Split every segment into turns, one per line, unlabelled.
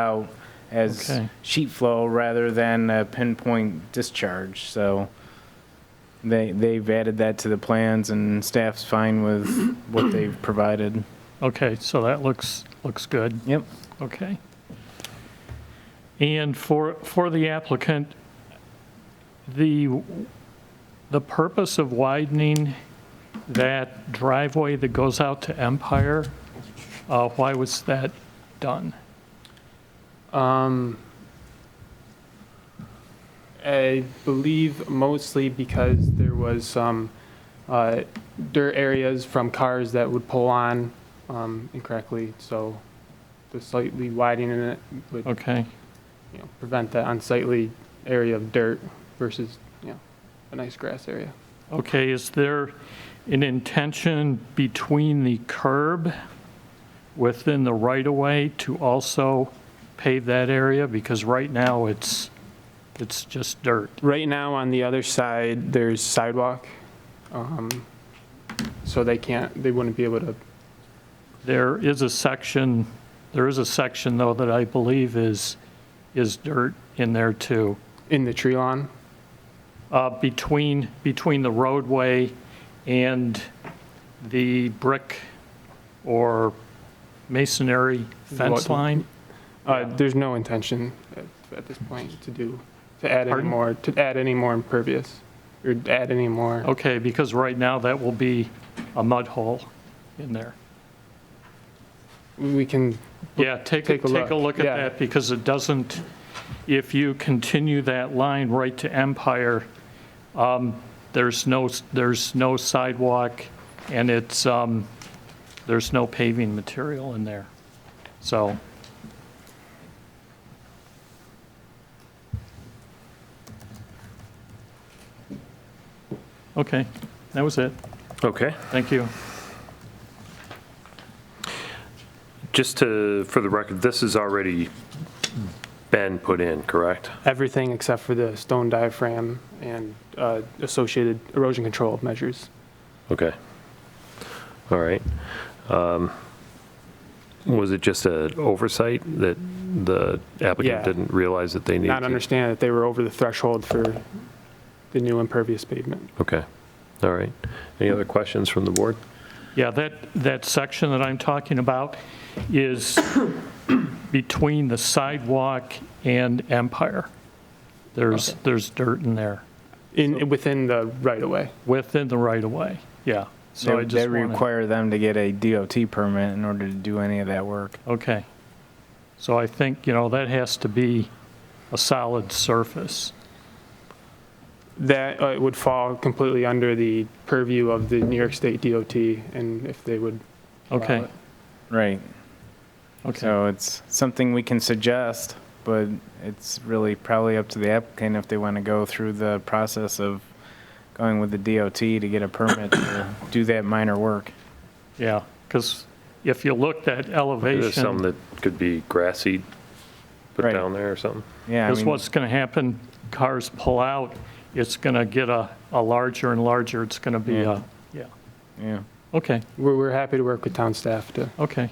out as
Okay.
sheet flow rather than a pinpoint discharge, so they, they've added that to the plans and staff's fine with what they've provided.
Okay, so that looks, looks good,
Yep.
okay. And for, for the applicant, the, the purpose of widening that driveway that goes out to Empire, uh, why was that done?
Um, I believe mostly because there was some uh, dirt areas from cars that would pull on um, incorrectly, so the slightly widening it would
Okay,
you know, prevent that unsightly area of dirt versus you know, a nice grass area.
okay, is there an intention between the curb within the right-of-way to also pave that area? Because right now, it's, it's just dirt.
Right now, on the other side, there's sidewalk, um, so they can't, they wouldn't be able to
There is a section, there is a section, though, that I believe is, is dirt in there, too.
in the tree lawn.
Uh, Between, between the roadway and the brick or masonry fence
What-
line?
Uh, There's no intention at at this point to do, to add any
Pardon?
more, to add any more impervious, or add any
Oh.
more.
Okay, because right now, that will be a mud hole in there.
We can,
Yeah, take, a-
Take a
take a
look,
look at
yeah.
that, because it doesn't, if you continue that line right to Empire, um, there's no, s- there's no sidewalk, and it's, um, there's no paving material in there, so. Okay, that was it,
Okay,
thank you.
just to, for the record, this has already been put in, correct?
everything except for the stone diaphragm and uh, associated erosion control measures.
Okay. All right. Um, Was it just an oversight that the
Yeah.
applicant didn't realize that they needed?
Not
to-
understand that they were over the threshold for the new impervious pavement.
Okay, all right. Any other questions from the board?
Yeah, that, that section that I'm talking about is between the sidewalk and Empire. There's, there's dirt in there,
In, within the right-of-way.
within the right-of-way, yeah. So I
They they
just wanted,
require them to get a DOT permit in order to do any of that work.
okay. So I think, you know, that has to be a solid surface.
That uh, would fall completely under the purview of the New York State DOT and if they would. allow
Okay,
it.
Right.
okay,
So it's something we can suggest, but it's really probably up to the applicant if they want to go through the process of going with the DOT to get a permit to do that minor work.
yeah, because if you looked at
There's some
elevation,
that could be grassy put
Right.
down there or something?
Yeah, I
this
mean,
what's going to happen, cars pull out, it's going to get a, a larger and larger, it's going to be
Yeah.
a, yeah,
yeah.
okay,
We're, we're happy to work with town staff to
okay.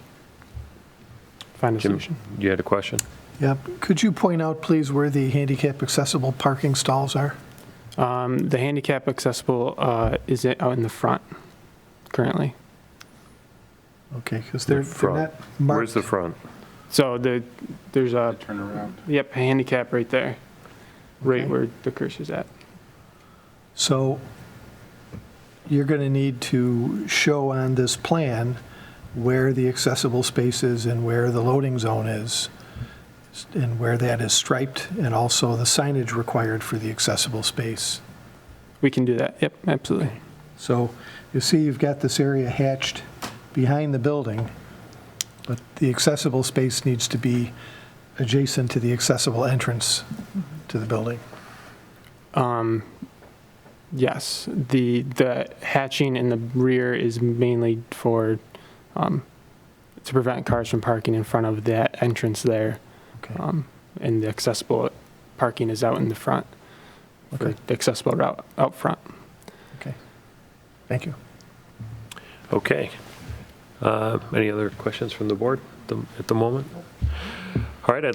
find a
Jim?
solution.
You had a question?
Yeah, could you point out, please, where the handicap accessible parking stalls are?
Um, The handicap accessible uh, is it out in the front currently.
Okay, because they're
The
they're
front.
not
Where's
marked.
the front?
So the, there's a. Turnaround. Yep, handicap right there, right
Okay.
where the cursor's at.
So you're going to need to show on this plan where the accessible space is and where the loading zone is, and where that is striped, and also the signage required for the accessible space.
We can do that, yep, absolutely.
So you see you've got this area hatched behind the building, but the accessible space needs to be adjacent to the accessible entrance to the building.
Um, Yes, the, the hatching in the rear is mainly for, um, to prevent cars from parking in front of that entrance there.
Okay.
Um, And the accessible parking is out in the front, for
Okay.
the accessible route out front.
Thank you.
Okay. Uh, Any other questions from the board at the- at the moment? All right, I'd like